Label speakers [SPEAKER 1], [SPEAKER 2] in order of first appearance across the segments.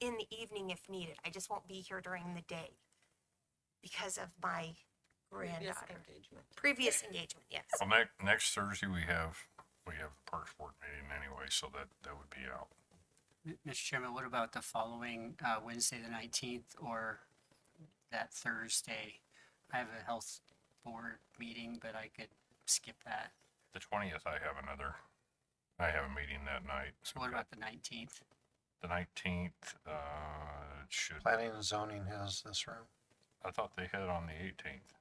[SPEAKER 1] in the evening if needed. I just won't be here during the day because of my granddaughter.
[SPEAKER 2] engagement.
[SPEAKER 1] Previous engagement, yes.
[SPEAKER 3] Well, next, next Thursday, we have, we have Parks Board meeting anyway, so that, that would be out.
[SPEAKER 4] M- Mr. Chairman, what about the following uh, Wednesday, the 19th, or that Thursday? I have a health board meeting, but I could skip that.
[SPEAKER 3] The twentieth, I have another, I have a meeting that night.
[SPEAKER 4] So what about the 19th?
[SPEAKER 3] The nineteenth, uh, it should,
[SPEAKER 5] Planning and zoning has this room.
[SPEAKER 3] I thought they had on the eighteenth.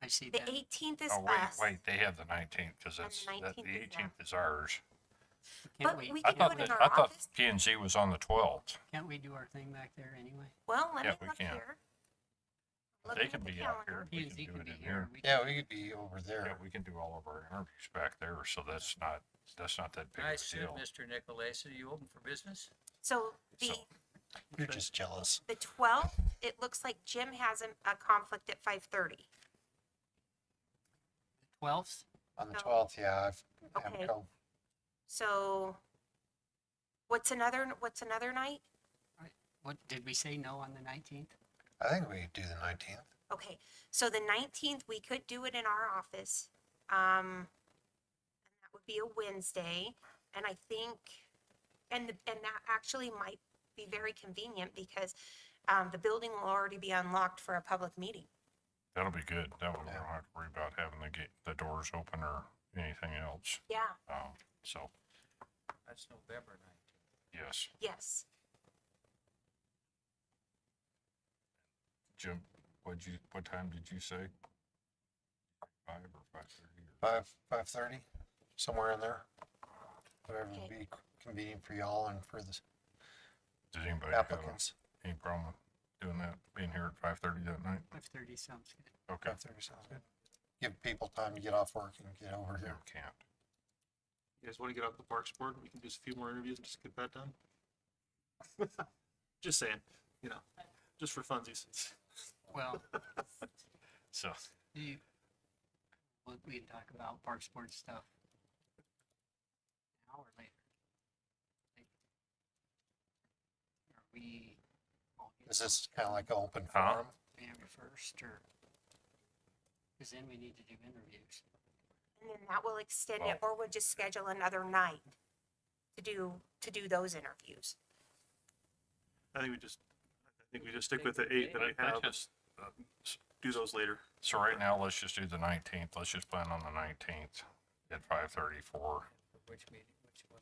[SPEAKER 4] I see
[SPEAKER 1] The
[SPEAKER 4] that.
[SPEAKER 1] 18th is
[SPEAKER 3] Oh, wait,
[SPEAKER 1] us.
[SPEAKER 3] wait, they have the nineteenth, cause
[SPEAKER 1] And
[SPEAKER 3] that's,
[SPEAKER 1] the
[SPEAKER 3] that, the
[SPEAKER 1] 19th is
[SPEAKER 3] eighteenth is ours.
[SPEAKER 1] but
[SPEAKER 4] Can't we,
[SPEAKER 1] we
[SPEAKER 3] I
[SPEAKER 1] can do
[SPEAKER 3] thought,
[SPEAKER 1] it in
[SPEAKER 3] that-
[SPEAKER 1] our
[SPEAKER 3] I thought
[SPEAKER 1] office.
[SPEAKER 3] P and Z was on the twelfth.
[SPEAKER 4] can't we do our thing back there anyway?
[SPEAKER 1] Well, let
[SPEAKER 3] yeah,
[SPEAKER 1] me
[SPEAKER 3] we
[SPEAKER 1] look
[SPEAKER 3] can.
[SPEAKER 1] here.
[SPEAKER 3] They
[SPEAKER 1] Looking
[SPEAKER 3] can
[SPEAKER 1] at the
[SPEAKER 3] be out here,
[SPEAKER 1] calendar.
[SPEAKER 3] we
[SPEAKER 4] P and
[SPEAKER 3] can
[SPEAKER 4] Z
[SPEAKER 3] do
[SPEAKER 4] could
[SPEAKER 3] it
[SPEAKER 4] be
[SPEAKER 3] in
[SPEAKER 4] here.
[SPEAKER 3] here.
[SPEAKER 4] We
[SPEAKER 5] Yeah, we could be over
[SPEAKER 3] Yeah,
[SPEAKER 5] there.
[SPEAKER 3] we can do all of our interviews back there, so that's not, that's not that big
[SPEAKER 6] I
[SPEAKER 3] of a
[SPEAKER 6] assume,
[SPEAKER 3] deal.
[SPEAKER 6] Mr. Nicolais, are you open for business?
[SPEAKER 1] So the
[SPEAKER 3] So-
[SPEAKER 5] You're just jealous.
[SPEAKER 1] the 12th, it looks like Jim has a, a conflict at 5:30.
[SPEAKER 4] 12th?
[SPEAKER 5] On the
[SPEAKER 1] No.
[SPEAKER 5] twelfth, yeah, I've, I'm
[SPEAKER 1] Oh. Okay.
[SPEAKER 5] co-
[SPEAKER 1] So what's another what's another night?
[SPEAKER 4] What, did we say no on the 19th?
[SPEAKER 5] I think we could do the nineteenth.
[SPEAKER 1] Okay, so the nineteenth, we could do it in our office. Um, and that would be a Wednesday, and I think, and, the- and that actually might be very convenient because, um, the building will already be unlocked for a public meeting.
[SPEAKER 3] That'll be good. That way we
[SPEAKER 5] Yeah.
[SPEAKER 3] don't have to worry about having the gate, the doors open or anything else.
[SPEAKER 1] Yeah.
[SPEAKER 3] Um, so,
[SPEAKER 6] That's November nineteenth.
[SPEAKER 3] yes,
[SPEAKER 1] Yes,
[SPEAKER 3] Jim, what'd you, what time did you say? Five or five thirty?
[SPEAKER 5] Five, five thirty, somewhere in there. Whatever would
[SPEAKER 1] Okay.
[SPEAKER 5] be convenient for y'all and for the
[SPEAKER 3] Did anybody have a-
[SPEAKER 5] applicants.
[SPEAKER 3] any problem with doing that, being here at five thirty that night?
[SPEAKER 4] 5:30 sounds good.
[SPEAKER 3] Okay.
[SPEAKER 5] Five thirty sounds good. Give people time to get off work and get over
[SPEAKER 3] You
[SPEAKER 5] here.
[SPEAKER 3] can't.
[SPEAKER 7] You guys want to get off the Parks Board? We can do just a few more interviews and just get that done. Just saying, you know, just for funsies.
[SPEAKER 4] Well,
[SPEAKER 3] So,
[SPEAKER 4] you, we- we can talk about park sports stuff. An hour later. Like, Are we? all good
[SPEAKER 5] Is this kind of like an open
[SPEAKER 3] Huh?
[SPEAKER 5] forum?
[SPEAKER 4] January first or? Cause then we need to do interviews.
[SPEAKER 1] and then that will extend it,
[SPEAKER 3] Well-
[SPEAKER 1] or we'll just schedule another night to do, to do those interviews.
[SPEAKER 7] I think we just, I think we just stick with the eight that I have.
[SPEAKER 3] Let's
[SPEAKER 7] and Do those later.
[SPEAKER 3] so right now, let's just do the nineteenth. Let's just plan on the nineteenth at five thirty
[SPEAKER 6] For
[SPEAKER 3] for
[SPEAKER 6] which meeting, which one?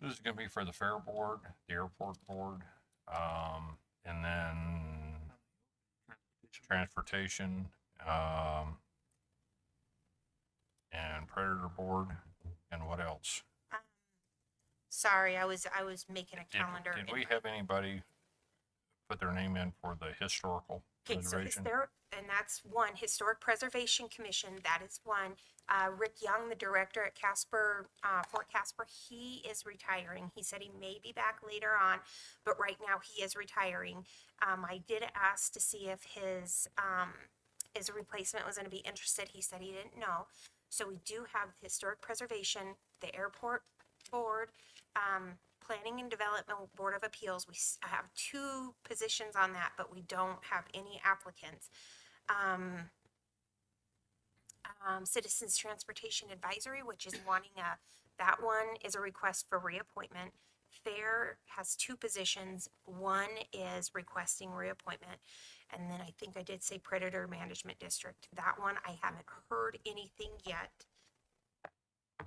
[SPEAKER 3] This is gonna be for the fair board, the airport board, um, and then transportation, um, and predator board, and what else?
[SPEAKER 1] Um, Sorry, I was, I was making a
[SPEAKER 3] Did,
[SPEAKER 1] calendar.
[SPEAKER 3] did
[SPEAKER 1] in
[SPEAKER 3] we
[SPEAKER 1] my-
[SPEAKER 3] have anybody put their name in for the historical
[SPEAKER 1] Okay, so is
[SPEAKER 3] preservation?
[SPEAKER 1] there, and that's one, Historic Preservation Commission, that is one. Uh, Rick Young, the director at Casper, uh, Fort Casper, he is retiring. He said he may be back later on, but right now he is retiring. Um, I did ask to see if his, um, his replacement was gonna be interested. He said he didn't know. So we do have Historic Preservation, the Airport Board, um, Planning and Development Board of Appeals, we s- have two positions on that, but we don't have any applicants. Um, um, Citizens Transportation Advisory, which is wanting a, that one is a request for reappointment. Fair has two positions, one is requesting reappointment. And then I think I did say Predator Management District, that one I haven't heard anything yet.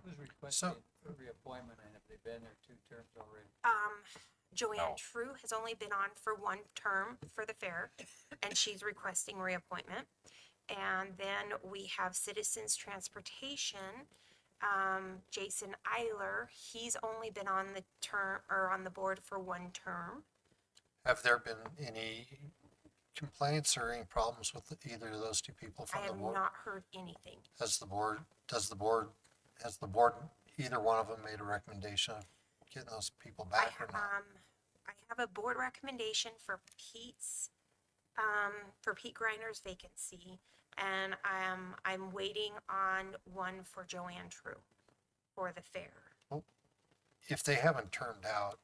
[SPEAKER 6] Who's requesting a reappointment and have they been there two terms already?
[SPEAKER 1] um, Joanne
[SPEAKER 3] No.
[SPEAKER 1] True has only been on for one term for the fair, and she's requesting reappointment. And then we have Citizens Transportation, um, Jason Eiler, he's only been on the term, or on the board for one term.
[SPEAKER 5] Have there been any complaints or any problems with either of those two people
[SPEAKER 1] I
[SPEAKER 5] from the
[SPEAKER 1] have
[SPEAKER 5] board?
[SPEAKER 1] not heard anything.
[SPEAKER 5] Has the board, does the board, has the board, either one of them made a recommendation of getting those people
[SPEAKER 1] I,
[SPEAKER 5] back or not?
[SPEAKER 1] um, I have a board recommendation for Pete's, um, for Pete Griner's vacancy. And I'm, I'm waiting on one for Joanne True for the fair.
[SPEAKER 5] If they haven't turned out,